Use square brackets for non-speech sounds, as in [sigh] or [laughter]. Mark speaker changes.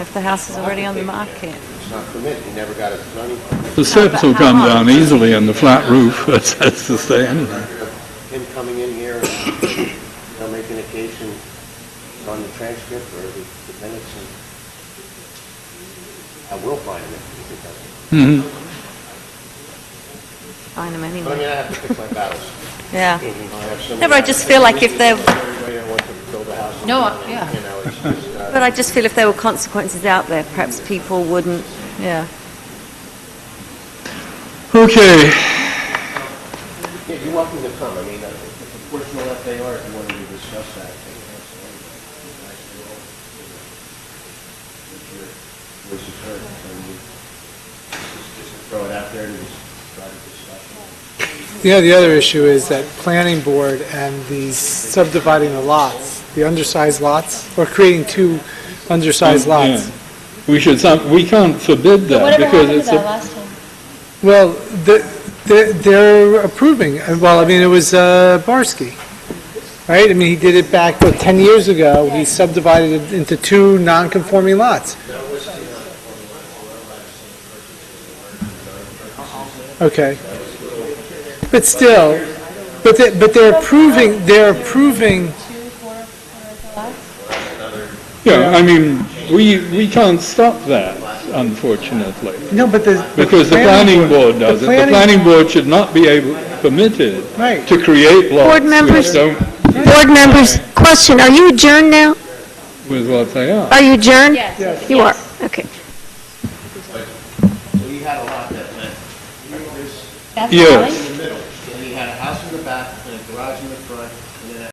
Speaker 1: If the house is already on the market.
Speaker 2: It's not permitted, he never got a zoning permit.
Speaker 3: The surface will come down easily on the flat roof, [laughs] that's, that's the thing, anyway.
Speaker 2: Him coming in here and, you know, making a case and it's on the transcript or the the minutes and I will find him if he doesn't.
Speaker 3: Mhm.
Speaker 1: Find them
Speaker 2: But I mean,
Speaker 1: anyway.
Speaker 2: I have to pick my battles.
Speaker 1: Yeah.
Speaker 2: I have so
Speaker 1: No, but
Speaker 2: many
Speaker 1: I just feel like if they're-
Speaker 2: Everybody that wants to build a house.
Speaker 4: No,
Speaker 2: and,
Speaker 4: I- yeah.
Speaker 2: You know, it's just, uh,
Speaker 1: But I just feel if there were consequences out there, perhaps people wouldn't, yeah.
Speaker 3: Okay,
Speaker 2: yeah, you're welcome to come, I mean, uh, it's unfortunate that they are, if you wanted to discuss that. I think that's all right. You guys will, you know, if your voice is heard, so you just- just throw it out there and just try to discuss it.
Speaker 5: The the other issue is that planning board and the subdividing the lots, the undersized lots, or creating two undersized lots.
Speaker 3: we should, some- we can't forbid that
Speaker 4: Whatever
Speaker 3: because
Speaker 4: happened to that last
Speaker 3: it's a,
Speaker 4: time?
Speaker 5: Well, the- the- they're approving, Uh, well, I mean, it was uh, Barsky, right? I mean, he did it back, what, 10 years ago, he subdivided it into two non-conforming lots. Okay. But still, but they- but they're approving, they're approving
Speaker 3: yeah, I mean, we, we can't stop that, unfortunately.
Speaker 5: No, but the.
Speaker 3: Because the planning board does it. The planning board should not be able, permitted
Speaker 5: Right.
Speaker 3: to create lots
Speaker 6: Board
Speaker 3: which
Speaker 6: members-
Speaker 3: don't,
Speaker 6: Board members, question, are you adjourned now?
Speaker 3: with what they are.
Speaker 6: Are you adjourned?
Speaker 4: Yes.
Speaker 6: You are, okay.
Speaker 2: We had a lot that went.
Speaker 4: That's
Speaker 3: Yes.
Speaker 4: fine.